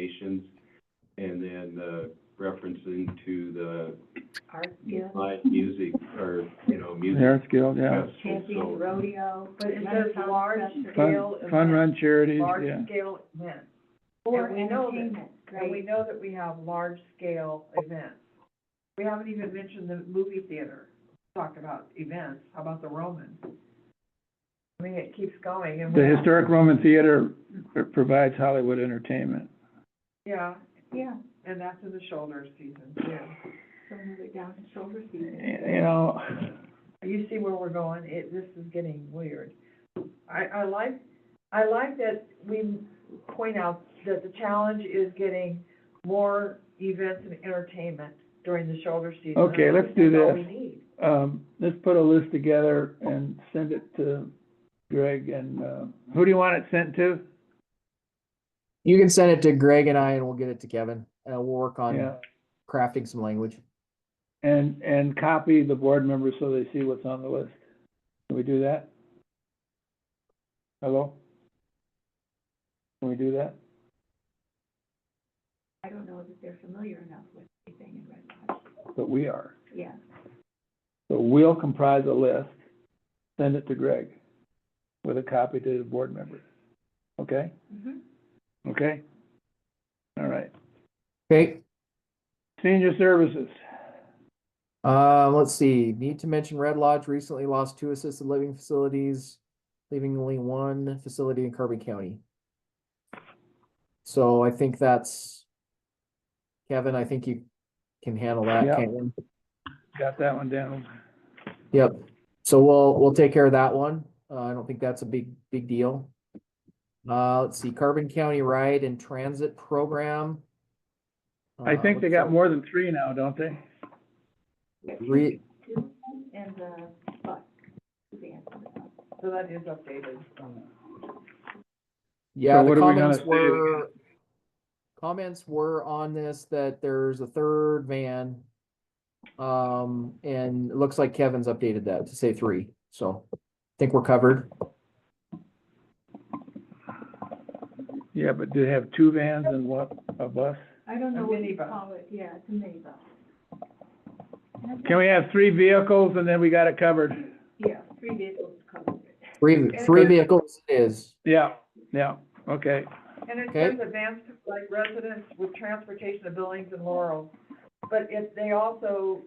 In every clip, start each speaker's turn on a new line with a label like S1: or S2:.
S1: questions, and then uh, referencing to the
S2: art skill,
S1: live music, or, you know, music
S3: Harris Guild, yeah.
S1: festival,
S2: camping,
S1: so.
S2: rodeo.
S4: But it
S2: Another
S4: says
S2: town
S4: large
S2: festival.
S3: Fun,
S4: scale
S3: fun
S4: event,
S3: run charities, yeah.
S4: large scale event.
S2: Or
S4: And we know that-
S2: entertainment,
S4: And we
S2: right?
S4: know that we have large scale events. We haven't even mentioned the movie theater, talked about events, how about the Roman? I mean, it keeps going and.
S3: The
S4: we're not-
S3: Historic Roman Theater pr- provides Hollywood entertainment.
S4: Yeah,
S2: Yeah,
S4: and that's in the shoulder season too.
S2: so another down and shoulder
S3: Y-
S2: season.
S3: You know,
S4: You see where we're going, it, this is getting weird. I, I like, I like that we point out that the challenge is getting more events and entertainment during the shoulder season.
S3: Okay,
S4: I
S3: let's
S4: think
S3: do
S4: that's all
S3: this.
S4: we need.
S3: um, let's put a list together and send it to Greg and, uh, who do you want it sent to?
S5: You can send it to Greg and I, and we'll get it to Kevin, and we'll work on
S3: Yeah,
S5: crafting some language.
S3: and, and copy the board members so they see what's on the list. Can we do that? Hello? Can we do that?
S2: I don't know that they're familiar enough with anything in Red Lodge.
S3: But we are.
S2: Yeah,
S3: So we'll comprise a list, send it to Greg with a copy to the board members. Okay?
S4: Mm-hmm.
S2: mhm.
S3: Okay? All right.
S5: Okay,
S3: Senior services.
S5: uh, let's see, need to mention Red Lodge recently lost two assisted living facilities, leaving only one facility in Kirby County. So I think that's, Kevin, I think you can handle that,
S3: Yeah.
S5: can't you?
S3: Got that one down.
S5: Yep, so we'll, we'll take care of that one. Uh, I don't think that's a big, big deal. Uh, let's see, Carbon County Ride and Transit Program.
S3: I
S5: Uh,
S3: think they
S5: looks
S3: got
S5: like
S3: more than three now, don't they?
S5: Re,
S2: And the bus, Suzanne.
S4: So that is updated.
S5: yeah,
S3: what
S5: the
S3: are we gonna
S5: comments
S3: say?
S5: were, comments were on this that there's a third van. Um, and it looks like Kevin's updated that to say three, so I think we're covered.
S3: Yeah, but do they have two vans and what, a bus?
S2: I don't know
S4: A
S2: what you
S4: minibus.
S2: call it, yeah, it's a minibus.
S3: Can we have three vehicles and then we got it covered?
S2: Yeah, three vehicles covered.
S5: Three, three vehicles is,
S3: Yeah, yeah, okay.
S4: And it
S5: Okay.
S4: says advanced, like residents with transportation to Billings and Laurel, but if they also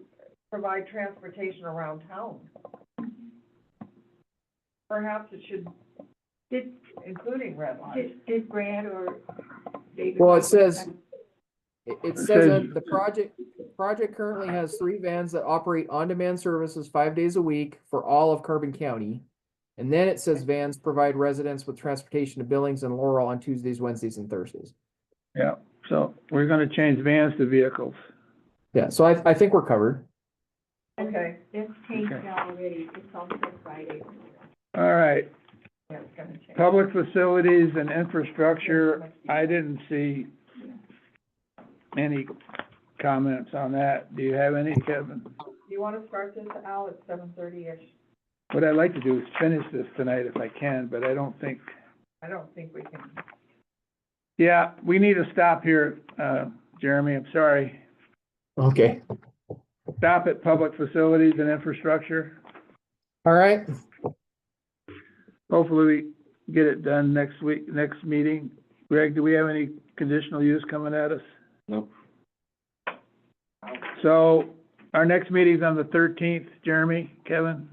S4: provide transportation around town. Perhaps it should,
S2: Did,
S4: including Red Lodge.
S2: did, did Brad or David?
S5: Well, it says- It,
S3: It
S5: it
S3: says-
S5: says that the project, project currently has three vans that operate on-demand services five days a week for all of Carbon County. And then it says vans provide residents with transportation to Billings and Laurel on Tuesdays, Wednesdays, and Thursdays.
S3: Yeah, so we're gonna change vans to vehicles.
S5: Yeah, so I, I think we're covered.
S4: Okay.
S2: It's changed
S3: Okay.
S2: already, it's also Friday.
S3: All right,
S4: Yeah, it's gonna change.
S3: public facilities and infrastructure, I didn't see any comments on that. Do you have any, Kevin?
S4: You wanna start this out at seven thirty-ish?
S3: What I'd like to do is finish this tonight if I can, but I don't think,
S4: I don't think we can.
S3: yeah, we need to stop here, uh, Jeremy, I'm sorry.
S5: Okay.
S3: Stop at public facilities and infrastructure.
S5: All right,
S3: Hopefully we get it done next week, next meeting. Greg, do we have any conditional use coming at us?
S1: Nope.
S3: So our next meeting's on the thirteenth, Jeremy, Kevin?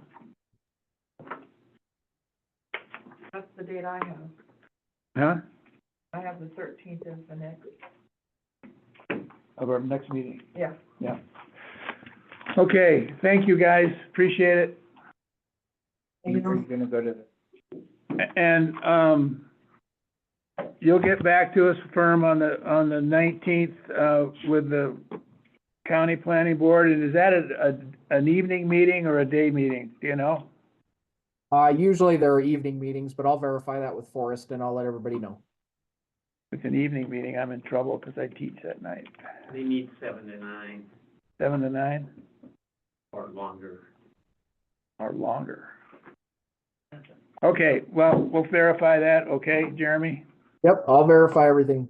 S4: That's the date I have.
S3: Huh?
S4: I have the thirteenth as the next,
S3: Of our next meeting.
S4: yeah.
S3: Okay, thank you guys, appreciate it. A- And, um, you'll get back to us firm on the, on the nineteenth, uh, with the county planning board, and is that a, a, an evening meeting or a day meeting, do you know?
S5: uh, usually there are evening meetings, but I'll verify that with Forrest and I'll let everybody know.
S3: If it's an evening meeting, I'm in trouble, cause I teach that night,
S6: They need seven to nine
S3: seven to nine
S6: or longer.
S3: or longer. Okay, well, we'll verify that, okay, Jeremy?
S5: Yep, I'll verify everything.